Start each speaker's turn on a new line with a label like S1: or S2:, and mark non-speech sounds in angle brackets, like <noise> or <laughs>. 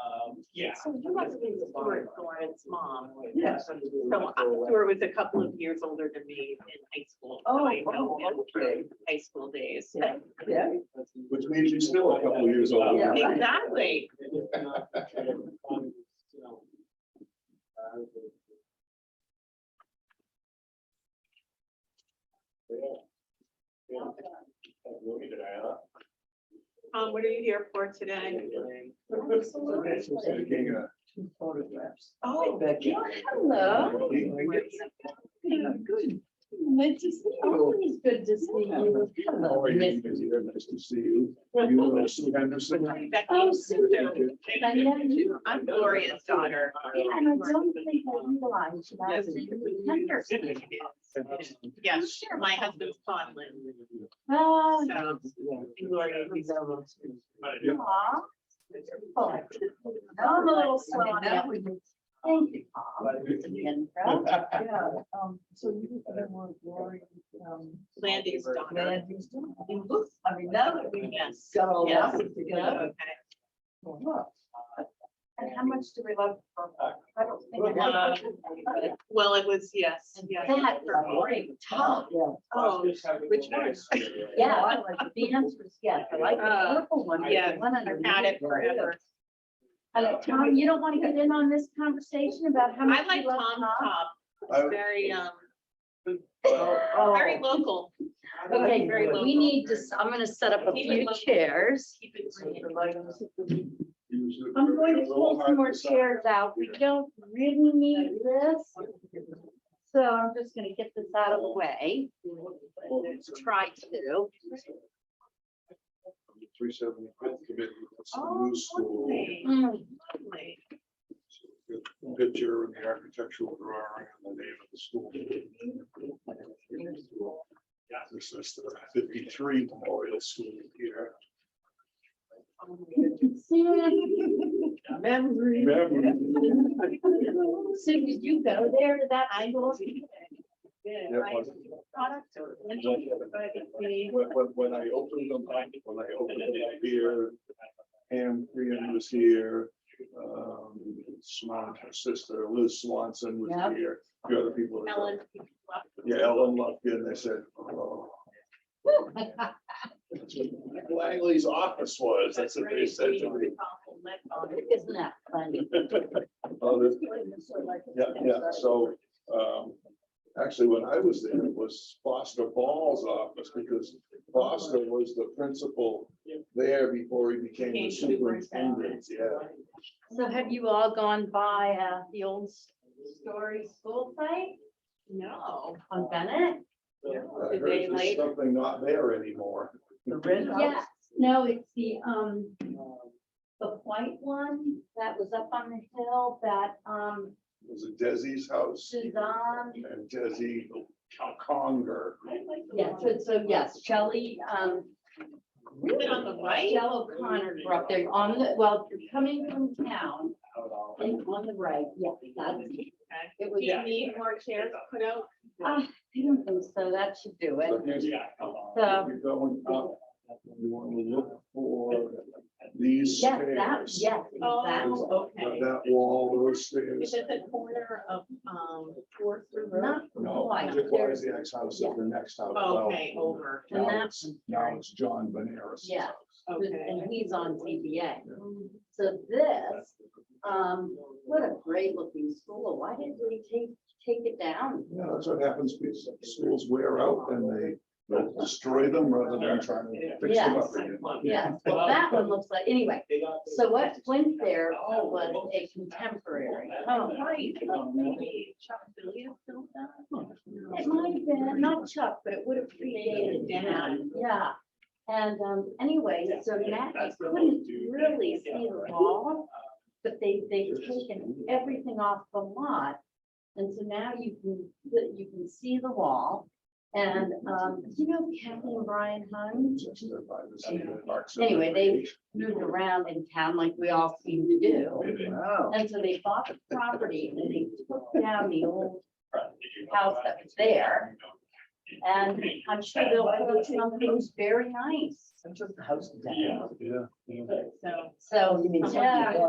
S1: Um, yeah.
S2: So you must have been Stuart Florence mom.
S1: Yes.
S2: So I- Stuart was a couple of years older than me in high school. so
S3: Oh,
S2: I know
S3: wow,
S2: him
S3: okay.
S2: from High school days.
S3: Yeah. Yeah.
S4: Which means you're still a couple years older.
S3: Yeah.
S2: Exactly. Um, what are you here for today?
S3: Two photographs.
S2: Oh,
S3: Becky.
S5: Hello. Yeah, Good. Good to see you. Always good to see you.
S4: How
S5: Hello,
S4: are
S5: Miss
S4: you? Nice to see you. You are Sue Henderson.
S2: I'm Becky.
S5: Oh, Sue. I know you.
S2: I'm Gloria's daughter.
S5: Yeah, And I don't think I realized that. I was really tender.
S2: Yes, sure, my husband's Conlon.
S5: Oh,
S2: So Gloria, he's
S5: aw. Oh, I'm a little slow on that. Thank you, Paul.
S3: Yeah, uh, um, so you have more glory, um.
S2: Landy's daughter.
S3: Land use. You look, I mean, now that we
S2: Yes.
S3: got all
S2: Yes.
S3: that together.
S2: Okay.
S3: well,
S1: And
S3: how much do we love? uh, I don't
S2: I love Well, it was, yes, yes.
S5: That for boring. Tom.
S3: Yeah.
S2: Oh, which one?
S5: <laughs> Yeah, I like the answers. Yes, I like the
S2: Uh,
S5: purple one. the
S2: yeah,
S5: one
S2: I've
S5: underneath.
S2: had it forever.
S5: Uh, Tom, you don't want to get in on this conversation about how much
S2: I
S5: you
S2: like
S5: love
S2: Tom
S5: Tom?
S2: Top.
S4: I-
S2: It's very, um,
S3: Oh,
S2: very local.
S5: Okay,
S2: Very local.
S5: we need to, s- I'm gonna set up a
S2: Keep it
S5: few
S2: local.
S5: chairs.
S2: Keep it green.
S5: I'm going to pull some more chairs out. We don't really need this. So I'm just gonna get this out of the way. Try to.
S4: Three seventy fifth committee, that's the
S2: Oh,
S4: new school.
S2: lovely,
S5: Mm,
S2: lovely.
S4: Good Picture and the architectural drawing and the name of the school. This is the fifty three memorial school here.
S3: memory.
S4: Memory.
S5: So did you go there to that angle?
S2: Yeah,
S4: Yeah,
S2: I-
S4: one.
S2: product or-
S4: When, when, when I opened them, when I opened them up here, Pam Crean was here. Um, Swan, her sister Liz Swanson was
S5: Yeah.
S4: here, a few other people. that-
S2: Ellen.
S4: Yeah, Ellen Lufkin, they said, oh. That's what Langley's office was, that's what they said to me.
S5: Isn't that funny?
S4: <laughs> Oh, this- Yeah, yeah, so, um, actually, when I was there, it was Foster Ball's office, because Foster was the principal there before he became the
S2: Became
S4: superintendent,
S2: superintendent.
S4: yeah.
S5: So have you all gone by uh, the old s- story school site
S2: No.
S5: on Bennett?
S4: I
S2: Did
S4: heard
S2: they
S4: there's
S2: like-
S4: something not there anymore.
S3: The red
S5: Yes,
S3: house.
S5: no, it's the, um, the white one that was up on the hill that, um,
S4: It was it Desi's house
S5: Suzanne.
S4: and Desi Conger.
S5: Yes, so, so yes, Shelley, um,
S2: Is it on the right?
S5: Shell O'Connor grew up there on the, well, you're coming from town and on the right, yeah, that's.
S2: Okay.
S5: It
S2: Do
S5: was,
S2: you need more chairs put out?
S5: ah, I don't think so, that should do it.
S4: So here's- if
S5: So-
S4: You're going up, you want to look for these
S5: Yes, that,
S4: stairs.
S5: yes, exactly.
S2: Oh,
S4: That
S2: okay.
S4: that wall, those
S2: Is
S4: stairs.
S2: it the corner of, um, Fourth River?
S5: Not
S4: No,
S5: quite.
S4: it was
S5: There's-
S4: the ex house of the next house. well,
S2: Oh, Okay, over.
S5: Oh, And
S4: Now
S5: that
S4: it's, now it's John Veneris.
S5: Yeah.
S2: Okay.
S5: And he's on TBA. So this, um, what a great looking school. Why didn't we take, take it down?
S4: Yeah, that's what happens, because schools wear out and they destroy them rather than trying to fix them up
S5: Yes.
S4: again.
S5: Yes, well, that one looks like, anyway, so what went there was a contemporary
S2: Oh,
S5: home.
S2: right. Chuck Billiard built
S5: It
S2: that?
S5: might have been, not Chuck, but it would have predated Dan, yeah. And, um, anyway, so Matt, you couldn't really see the wall, but they, they've taken everything off the lot. And so now you can, that you can see the wall. And, um, you know, Kathy and Brian Hung
S4: Just there by the city of Parks.
S5: Anyway, they- moved around in town like we all seem to do.
S3: Wow.
S5: And so they bought the property and they took down the old house that was there. And I'm sure they'll put something very nice.
S3: I'm just the house down. Oh,
S4: Yeah, yeah.
S2: So.
S5: So,
S3: You mean something
S5: yeah.
S3: above.